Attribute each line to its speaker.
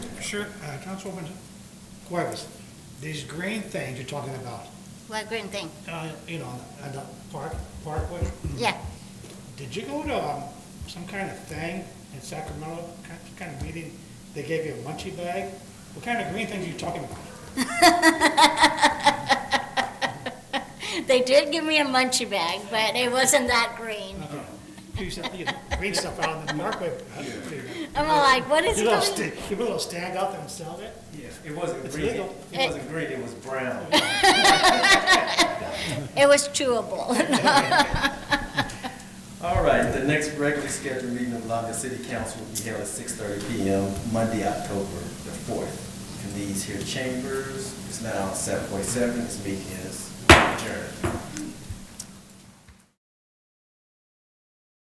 Speaker 1: Sure, uh, Councilwoman Cuevas, these green things you're talking about,
Speaker 2: What green thing?
Speaker 1: uh, you know, on the park, parkway?
Speaker 2: Yeah.
Speaker 1: Did you go to, um, some kind of thing in Sacramento, kind, kind of meeting, they gave you a munchie bag? What kind of green things are you talking about?
Speaker 2: They did give me a munchie bag, but it wasn't that green.
Speaker 1: Okay. You said, you know, green stuff out on the parkway.
Speaker 2: I'm all like, what is
Speaker 1: You little
Speaker 2: going?
Speaker 1: sta- you little stand out there and sell it?
Speaker 3: Yeah, it wasn't
Speaker 1: It's
Speaker 3: green, it
Speaker 1: legal.
Speaker 3: wasn't green, it was brown.
Speaker 2: It was chewable.
Speaker 3: All right, the next regularly scheduled meeting of Longview City Council will be held at six thirty P M, Monday, October the fourth. In these here chambers, it's now seven forty-seven, this meeting is adjourned.